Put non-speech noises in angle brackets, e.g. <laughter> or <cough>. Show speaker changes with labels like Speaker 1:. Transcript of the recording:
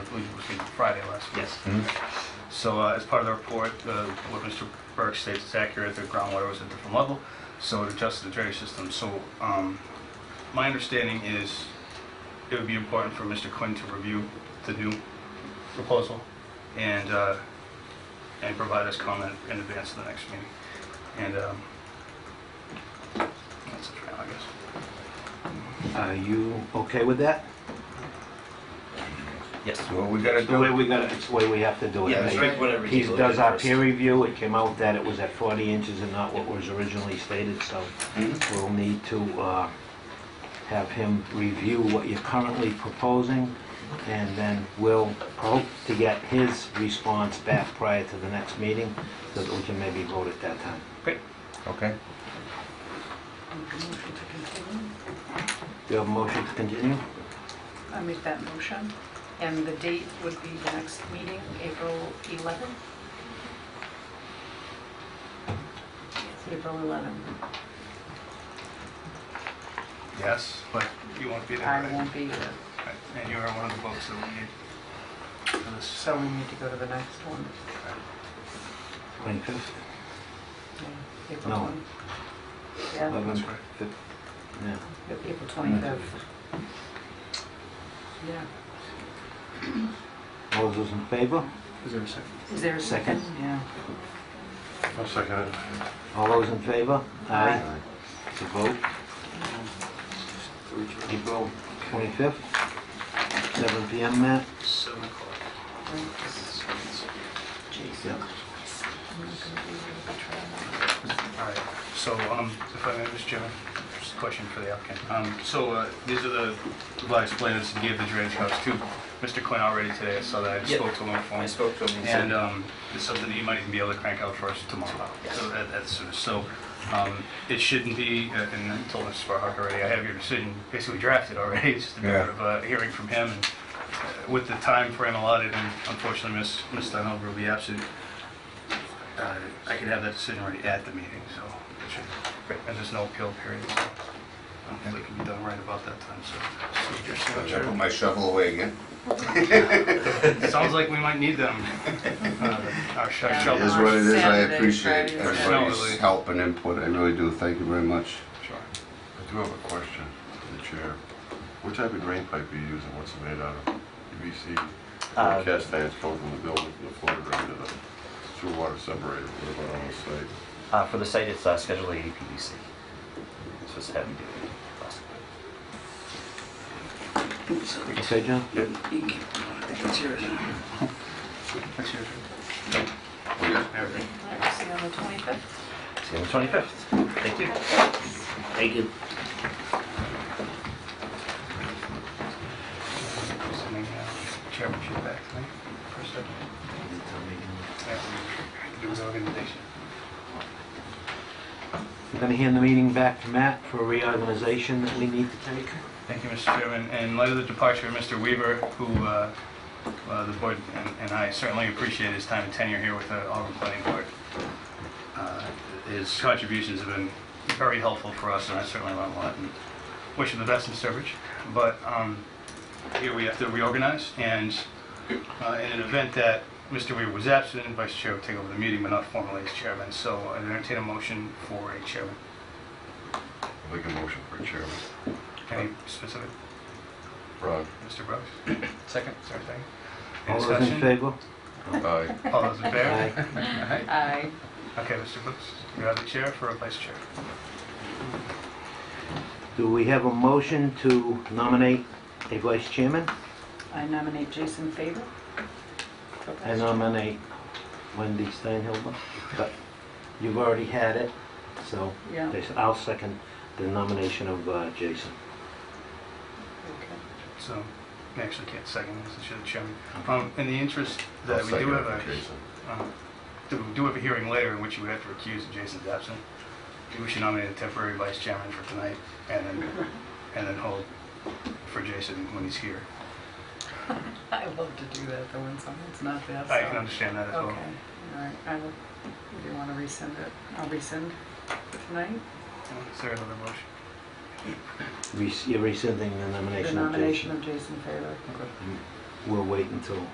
Speaker 1: Friday last week.
Speaker 2: Yes.
Speaker 3: Hmm?
Speaker 1: So uh, as part of the report, uh, what Mr. Burke states is accurate, the groundwater was at a different level, so it adjusted the drainage system. So um, my understanding is it would be important for Mr. Quinn to review the new proposal and, uh, and provide us comment in advance of the next meeting. And um, that's it for now, I guess.
Speaker 2: Are you okay with that?
Speaker 3: Yes.
Speaker 4: Well, we gotta
Speaker 2: It's the
Speaker 4: do
Speaker 2: way
Speaker 4: it.
Speaker 2: we got, it's the way we have to do it.
Speaker 1: Yeah,
Speaker 2: I
Speaker 1: that's
Speaker 2: mean,
Speaker 1: right.
Speaker 3: Whatever
Speaker 2: He
Speaker 3: you do,
Speaker 2: does our
Speaker 3: first.
Speaker 2: peer review, it came out that it was at 40 inches and not what was originally stated, so we'll need to uh, have him review what you're currently proposing, and then we'll hope to get his response back prior to the next meeting, so that we can maybe vote at that time.
Speaker 1: Great.
Speaker 4: Okay.
Speaker 2: Do you have a motion to continue?
Speaker 5: I make that motion, and the date would be the next meeting, April 11th? April 11th.
Speaker 1: Yes, but you won't be there.
Speaker 5: I
Speaker 1: right?
Speaker 5: won't be uh, here,
Speaker 1: Right. And you are one of the votes that we need for this.
Speaker 5: so we need to go to the next one.
Speaker 2: 25th?
Speaker 5: Yeah, April
Speaker 2: No.
Speaker 5: 20. Yeah,
Speaker 1: That's right.
Speaker 2: Yeah.
Speaker 5: April 25th. Yeah.
Speaker 2: All those in favor?
Speaker 1: Is there a second?
Speaker 5: Is there a second?
Speaker 2: Second.
Speaker 5: Yeah.
Speaker 4: I'll second it.
Speaker 2: All those in favor?
Speaker 5: Aye.
Speaker 2: It's a vote. April 25th, 7 PM, Matt?
Speaker 1: Seven o'clock.
Speaker 5: Jason. I'm not gonna be here to try that.
Speaker 1: All right, so, um, if I may, Mr. Chairman, just a question for the applicant. Um, so, uh, these are the revised plans and gave the drainage house to Mr. Quinn already today, I saw that, I
Speaker 3: Yep.
Speaker 1: spoke to him on the phone.
Speaker 3: I spoke to him. he said-
Speaker 1: And, um, it's something that you might even be able to crank out for us tomorrow.
Speaker 3: Yes.
Speaker 1: So that, that's, sort of- so, um, it shouldn't be, uh, and I told Mr. Farhart already, I have your decision basically drafted already, <laughs> it's just a
Speaker 4: Yeah.
Speaker 1: matter of, uh, hearing from him. and uh, With the time frame allotted, and unfortunately, Ms. Ms. Dunham will be absent, uh, I could have that decision already at the meeting, so, it should- and there's no appeal period, so hopefully it can be done right about that time, so.
Speaker 4: I put my shovel away again.
Speaker 1: Sounds like we might need them, uh, our sh- our
Speaker 5: Yeah.
Speaker 4: It
Speaker 1: shovels.
Speaker 4: is what it is. I
Speaker 5: Saturday,
Speaker 4: appreciate
Speaker 5: Friday,
Speaker 4: everybody's
Speaker 1: Saturday.
Speaker 4: help and input. I really do. Thank you very much.
Speaker 1: Sure.
Speaker 6: I do have a question to the chair. What type of drain pipe are you using? What's it made out of? PVC?
Speaker 3: Uh,
Speaker 6: Cast irons come from the building, to the floor drain to the sewer water separator. What about on the site?
Speaker 3: Uh, for the site, it's uh, Schedule A PVC. It's just heavy duty. plastic.
Speaker 2: You say, John?
Speaker 1: That's yours. Everything.
Speaker 5: All right, See you on the 25th?
Speaker 3: See you on the 25th. Thank you. Thank you.
Speaker 1: Sending uh, chairmanship back to me for a second. Yeah, Do the organization.
Speaker 2: We're gonna hand the meeting back to Matt for reorganization that we need to take.
Speaker 1: Thank you, Mr. Chairman. In light of the departure of Mr. Weaver, who uh, uh, the board and- and I certainly appreciate his time and tenure here with the Auburn Planning Board. Uh, His contributions have been very helpful for us, and I certainly learned a lot. and Wish him the best in Sturbridge. But um, here we have to reorganize, and uh, in an event that Mr. Weaver was absent, Vice Chair will take over the meeting, but not formally as chairman. So I entertain a motion for a chairman.
Speaker 6: I'll make a motion for a chairman.
Speaker 1: Any specific?
Speaker 6: Rod?
Speaker 1: Mr. Brooks? Second. Sorry, second. Any
Speaker 2: All those in
Speaker 1: discussion?
Speaker 2: favor?
Speaker 6: uh, Aye.
Speaker 1: All those in favor?
Speaker 2: Aye.
Speaker 1: Aye.
Speaker 5: Aye.
Speaker 1: Okay, Mr. Brooks, you have the chair for a vice chair.
Speaker 2: Do we have a motion to nominate a vice chairman?
Speaker 5: I nominate Jason Faber. for
Speaker 2: I
Speaker 5: vice
Speaker 2: nominate Wendy Steinhilber, but you've already had it, so
Speaker 5: chair. Yeah, okay.
Speaker 2: I'll second the nomination of uh, Jason.
Speaker 1: So, I actually can't second, this is the chairman. Um, in the interest that
Speaker 6: I'll
Speaker 1: we
Speaker 6: second
Speaker 1: do
Speaker 6: it
Speaker 1: have
Speaker 6: for
Speaker 1: a,
Speaker 6: Jason.
Speaker 1: um, do- we do have a hearing later in which you would have to recuse if Jason's absent. We should nominate a temporary vice chairman for tonight and then, and then hold for Jason when he's here.
Speaker 5: I love to do that, though, when someone's not there, so.
Speaker 1: I can understand that as well.
Speaker 5: Okay, all right, I will, if you want to rescind it, I'll rescind tonight,
Speaker 1: Is there another motion?
Speaker 2: Res- You're rescinding the
Speaker 5: the
Speaker 2: nomination of
Speaker 5: nomination
Speaker 2: Jason.
Speaker 5: of Jason Faber.
Speaker 2: We'll wait until